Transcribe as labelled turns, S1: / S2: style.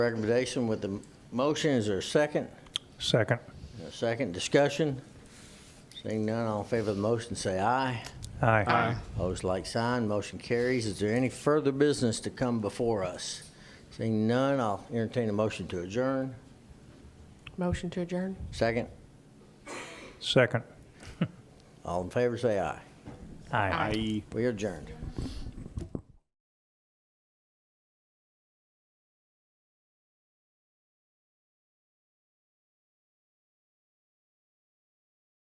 S1: Recommendation with the motion, is there a second?
S2: Second.
S1: A second discussion? Seeing none, all in favor of the motion, say aye.
S2: Aye.
S1: Opposed, like sign, motion carries. Is there any further business to come before us? Seeing none, I'll entertain a motion to adjourn.
S3: Motion to adjourn?
S1: Second,
S2: Second.
S1: all in favor, say aye.
S2: Aye.
S1: We are adjourned.